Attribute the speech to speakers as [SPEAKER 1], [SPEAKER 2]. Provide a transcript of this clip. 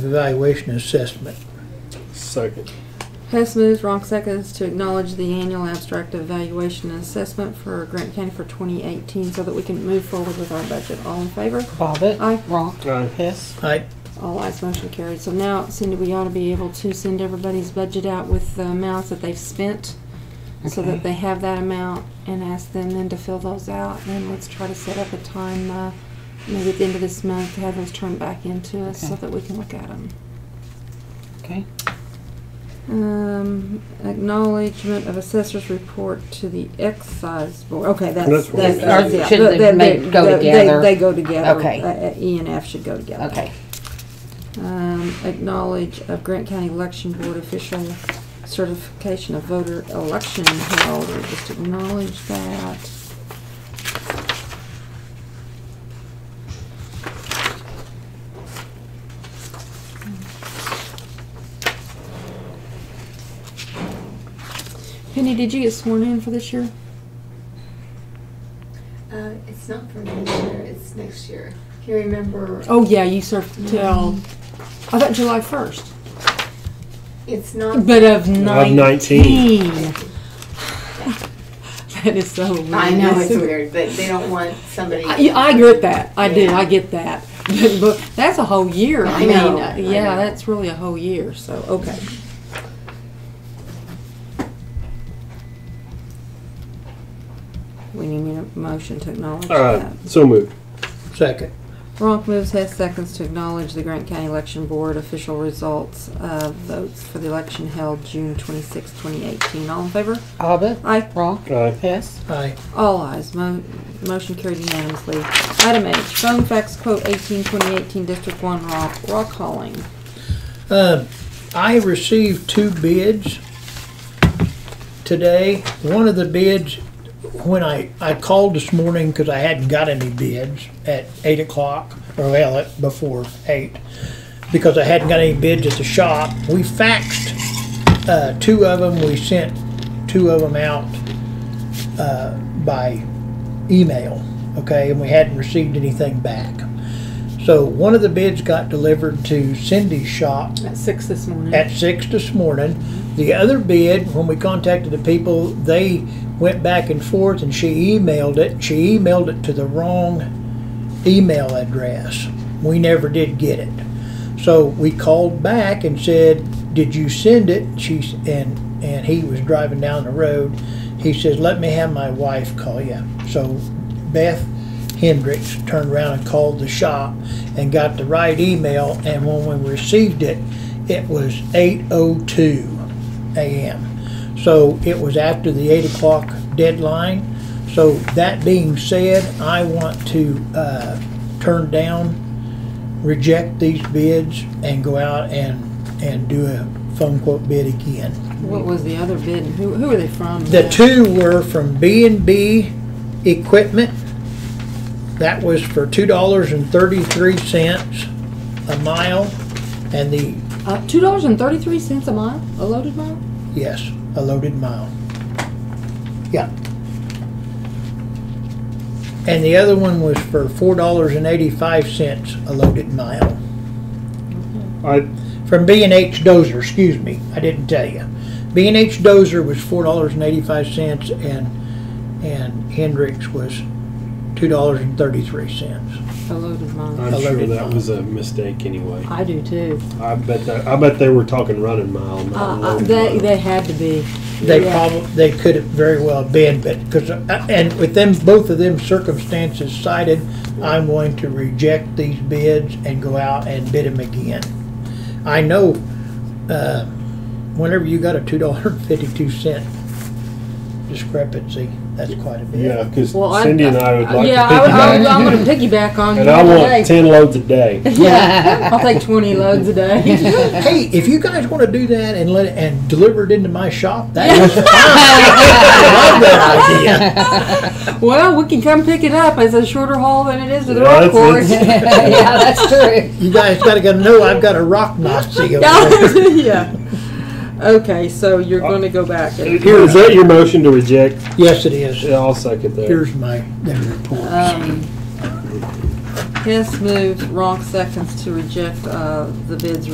[SPEAKER 1] evaluation assessment.
[SPEAKER 2] Second.
[SPEAKER 3] Hess moves, Ronk seconds to acknowledge the annual abstract evaluation and assessment for Grant County for 2018 so that we can move forward with our budget. All in favor?
[SPEAKER 4] Bobbit.
[SPEAKER 3] Aye.
[SPEAKER 4] Wrong.
[SPEAKER 2] Aye.
[SPEAKER 4] Hess.
[SPEAKER 1] I,
[SPEAKER 3] All ayes, motion carried. So now, Cindy, we ought to be able to send everybody's budget out with the amounts that they've spent so
[SPEAKER 4] Okay.
[SPEAKER 3] that they have that amount and ask them then to fill those out. And let's try to set up a time, uh, maybe at the end of this month, to have those turned back into us so
[SPEAKER 4] Okay.
[SPEAKER 3] that we can look at them.
[SPEAKER 4] Okay.
[SPEAKER 3] Um, acknowledgement of assessor's report to the excise board. Okay, that's,
[SPEAKER 2] That's what
[SPEAKER 3] that's,
[SPEAKER 2] we
[SPEAKER 3] that's
[SPEAKER 2] did.
[SPEAKER 3] it.
[SPEAKER 4] Should they
[SPEAKER 3] They- they-
[SPEAKER 4] make- go
[SPEAKER 3] they- they-
[SPEAKER 4] together?
[SPEAKER 3] They go together.
[SPEAKER 4] Okay.
[SPEAKER 3] Uh, uh, E and F should go together.
[SPEAKER 4] Okay.
[SPEAKER 3] Um, acknowledge of Grant County Election Board official certification of voter election held. We Just acknowledge that. Penny, did you get sworn in for this year?
[SPEAKER 5] Uh, it's not for next year, it's next year. Can you remember?
[SPEAKER 3] Oh, yeah, you served till, I thought July first.
[SPEAKER 5] It's not.
[SPEAKER 3] But of
[SPEAKER 2] Of
[SPEAKER 3] 19.
[SPEAKER 2] 19.
[SPEAKER 3] that is so weird.
[SPEAKER 5] I know it's weird, but they don't want somebody.
[SPEAKER 3] I, I get that. I do.
[SPEAKER 5] Yeah.
[SPEAKER 3] I get that. But, but that's a whole year. I,
[SPEAKER 5] I
[SPEAKER 3] mean,
[SPEAKER 5] know,
[SPEAKER 3] uh,
[SPEAKER 5] I
[SPEAKER 3] yeah,
[SPEAKER 5] know.
[SPEAKER 3] that's really a whole year. So, okay. We need a motion to acknowledge
[SPEAKER 2] Alright,
[SPEAKER 3] that.
[SPEAKER 2] so moved.
[SPEAKER 1] second,
[SPEAKER 3] Ronk moves Hess seconds to acknowledge the Grant County Election Board official results of votes for the election held June 26, 2018. All in favor?
[SPEAKER 4] Bobbit.
[SPEAKER 3] Aye.
[SPEAKER 4] Wrong.
[SPEAKER 2] Aye.
[SPEAKER 4] Hess.
[SPEAKER 1] I,
[SPEAKER 3] All ayes. Mo- motion carried unanimously. Item H, phone fax quote 18 2018 District 1 rock, rock hauling.
[SPEAKER 1] Um, I received two bids today. One of the bids, when I, I called this morning because I hadn't got any bids at eight o'clock, or well, at- before eight, because I hadn't got any bids at the shop. We faxed, uh, two of them, we sent two of them out, uh, by email, okay? And we hadn't received anything back. So one of the bids got delivered to Cindy's shop
[SPEAKER 3] At 6 this morning.
[SPEAKER 1] at six this morning. The other bid, when we contacted the people, they went back and forth and she emailed it. She emailed it to the wrong email address. We never did get it. So we called back and said, "Did you send it?" She s- and and he was driving down the road. He says, "Let me have my wife call you." So Beth Hendricks turned around and called the shop and got the right email. And when we received it, it was 8:02 a.m. So it was after the eight o'clock deadline. So that being said, I want to uh, turn down reject these bids and go out and, and do a phone quote bid again.
[SPEAKER 3] What was the other bid? and Who, who are they from?
[SPEAKER 1] The two were from B and B Equipment. That was for two dollars and thirty-three cents a mile. And the,
[SPEAKER 3] Uh, $2.33 a mile? A loaded mile?
[SPEAKER 1] yes, a loaded mile. Yeah. And the other one was for four dollars and eighty-five cents a loaded mile.
[SPEAKER 2] I,
[SPEAKER 1] from B and H Dozer. Excuse me, I didn't tell you. B and H Dozer was four dollars and eighty-five cents, and and Hendrix was two dollars and thirty-three cents.
[SPEAKER 3] A loaded mile.
[SPEAKER 2] I'm sure
[SPEAKER 1] Loaded
[SPEAKER 2] that
[SPEAKER 1] mile.
[SPEAKER 2] was a mistake anyway.
[SPEAKER 3] I do too.
[SPEAKER 2] I bet that, I bet they were talking running mile,
[SPEAKER 3] Uh,
[SPEAKER 2] not
[SPEAKER 3] uh,
[SPEAKER 2] loaded
[SPEAKER 3] they,
[SPEAKER 2] mile.
[SPEAKER 3] they had to be.
[SPEAKER 1] They
[SPEAKER 3] Yeah.
[SPEAKER 1] probably they could have very well been, but because and with them both of them circumstances cited, I'm going to reject these bids and go out and bid them again. I know. Uh, whenever you got a two dollar fifty-two cent discrepancy, that's quite a bit.
[SPEAKER 2] Yeah, cause
[SPEAKER 3] Well, I-
[SPEAKER 2] Cindy and I would like to
[SPEAKER 3] yeah, I, would- I,
[SPEAKER 2] piggyback.
[SPEAKER 3] would- I'm going to piggyback on
[SPEAKER 2] And
[SPEAKER 3] you
[SPEAKER 2] I
[SPEAKER 3] today.
[SPEAKER 2] want ten loads a day.
[SPEAKER 3] Yeah, I'll take 20 loads a day.
[SPEAKER 1] hey, if you guys want to do that and let it, and deliver it into my shop, that is fine. I love that idea.
[SPEAKER 3] well, we can come pick it up. It's a shorter haul than it is to the
[SPEAKER 2] Yeah,
[SPEAKER 3] road
[SPEAKER 2] it's-
[SPEAKER 3] course.
[SPEAKER 2] it's-
[SPEAKER 4] yeah, that's true.
[SPEAKER 1] You guys got to know I've got a rock Nazi over there.
[SPEAKER 3] yeah. Okay, so you're going to go back. And,
[SPEAKER 2] Is that your motion to reject?
[SPEAKER 1] Yes, it is.
[SPEAKER 2] Yeah, I'll second that.
[SPEAKER 1] Here's my their reports.
[SPEAKER 3] um, Hess moves, Ronk seconds to reject uh, the bids